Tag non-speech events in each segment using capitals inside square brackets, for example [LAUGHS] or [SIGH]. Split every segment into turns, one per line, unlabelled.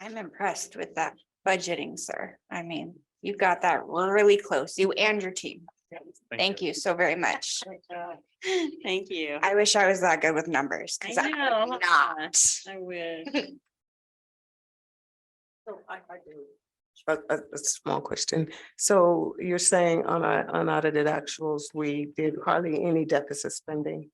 I'm impressed with that budgeting, sir. I mean, you got that really close, you and your team. Thank you so very much.
[LAUGHS] Thank you.
I wish I was that good with numbers, because
I
I'm
know, huh?
not.
I wish.
A, a, a small question. So you're saying on our unaudited actuals, we did hardly any deficit spending?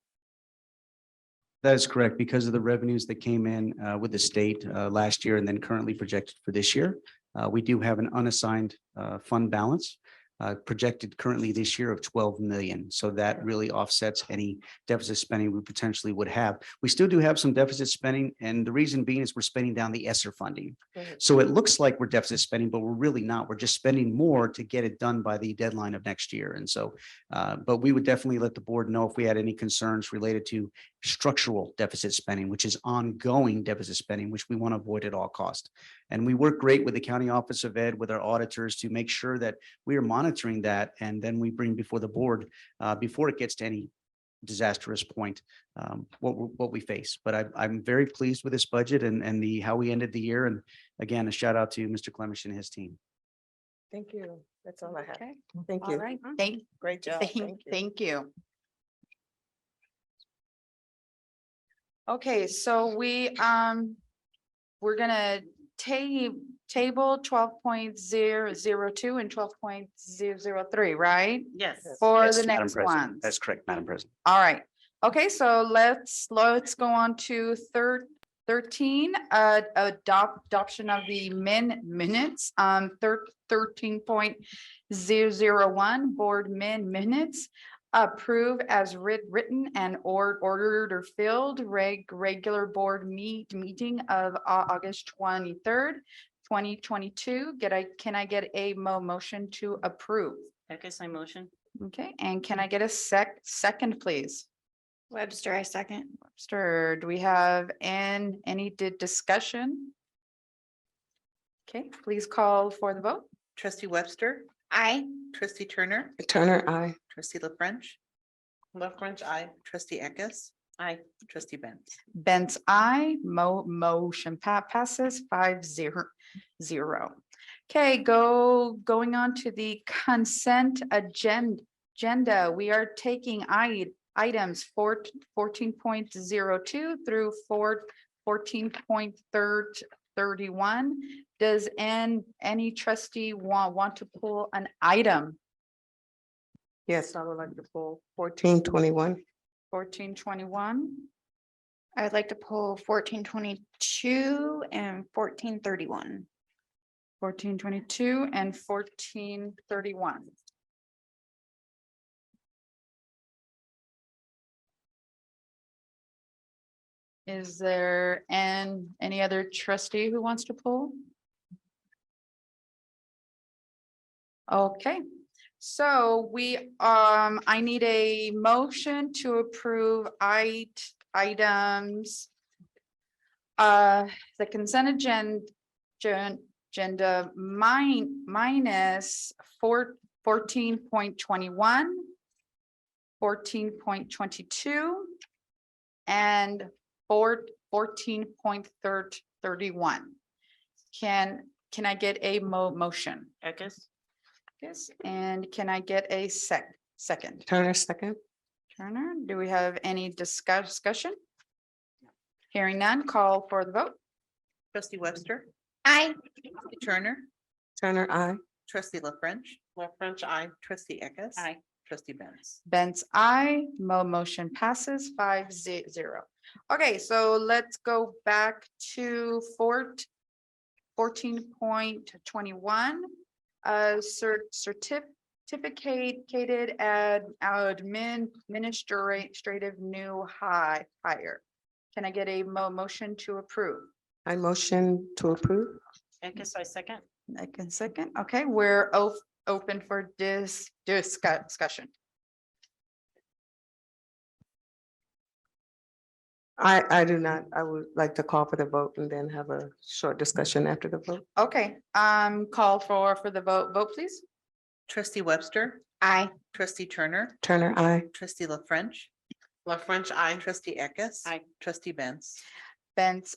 That is correct, because of the revenues that came in uh, with the state uh, last year and then currently projected for this year. uh, We do have an unassigned uh, fund balance uh, projected currently this year of twelve million. So that really offsets any deficit spending we potentially would have. We still do have some deficit spending, and the reason being is we're spending down the ESSER funding.
Mhm.
So it looks like we're deficit spending, but we're really not. We're just spending more to get it done by the deadline of next year. And so, uh, but we would definitely let the board know if we had any concerns related to structural deficit spending, which is ongoing deficit spending, which we want to avoid at all cost. And we work great with the county office of ed, with our auditors to make sure that we are monitoring that. And then we bring before the board, uh, before it gets to any disastrous point, um, what, we- what we face. But I, I'm very pleased with this budget and, and the, how we ended the year. And again, a shout out to Mr. Clemish and his team.
Thank you. That's all I have.
Okay,
Thank
all
you. Mm-hmm.
right, thank,
Great job.
thank,
you.
thank you. Okay, so we, um, we're gonna ta- table twelve point zero zero two and twelve point zero zero three, right?
Yes.
For the
Yes, Madam
next
President.
ones.
That's correct, Madam President.
All right, okay, so let's, let's go on to third, thirteen, uh, adopt, adoption of the min, minutes, um, thir- thirteen point zero zero one, board min minutes, approve as writ, written and or ordered or filled, reg, regular board meet, meeting of Au- August twenty-third, twenty twenty-two, get I, can I get a mo- motion to approve?
Becca's my motion.
Okay, and can I get a sec, second, please?
Webster, I second.
Webster, do we have an, any di- discussion? Okay, please call for the vote.
Trustee Webster,
I,
trustee Turner,
Turner, I.
trustee La French,
Love French, I.
trustee Eckes,
I.
trustee Benz.
Benz, I, mo- motion pa- passes five zero zero. Okay, go, going on to the consent agen- agenda, we are taking i- items four, fourteen point zero two through four, fourteen point third, thirty-one. Does an, any trustee wa- want to pull an item?
Yes, I would like to pull fourteen twenty-one.
Fourteen twenty-one,
I would like to pull fourteen twenty-two and fourteen thirty-one.
fourteen twenty-two, and fourteen thirty-one. Is there an, any other trustee who wants to pull? Okay, so we, um, I need a motion to approve it, items. Uh, the consent agenda, agenda mine, minus four, fourteen point twenty-one. Fourteen point twenty-two. And four, fourteen point third, thirty-one. Can, can I get a mo- motion?
Becca's.
Yes, and can I get a sec, second?
Turner, second.
Turner, do we have any discuss, discussion? Hearing none, call for the vote.
Trustee Webster,
I,
trustee Turner,
Turner, I.
trustee La French. La French, I. Trustee Eckes.
Aye.
Trustee Benz.
Benz, I, mo motion passes five ze- zero. Okay, so let's go back to fort fourteen point twenty-one. Uh, cer- certificated ad admin administrative new high hire. Can I get a mo- motion to approve?
I motion to approve.
Becca's, I second.
I can second. Okay, we're o- open for dis- discuss- discussion.
I, I do not. I would like to call for the vote and then have a short discussion after the vote.
Okay, um, call for, for the vote, vote please.
Trustee Webster,
I,
trustee Turner,
Turner, I.
trustee La French. La French, I. Trustee Eckes.
Aye.
Trustee Benz.
Benz,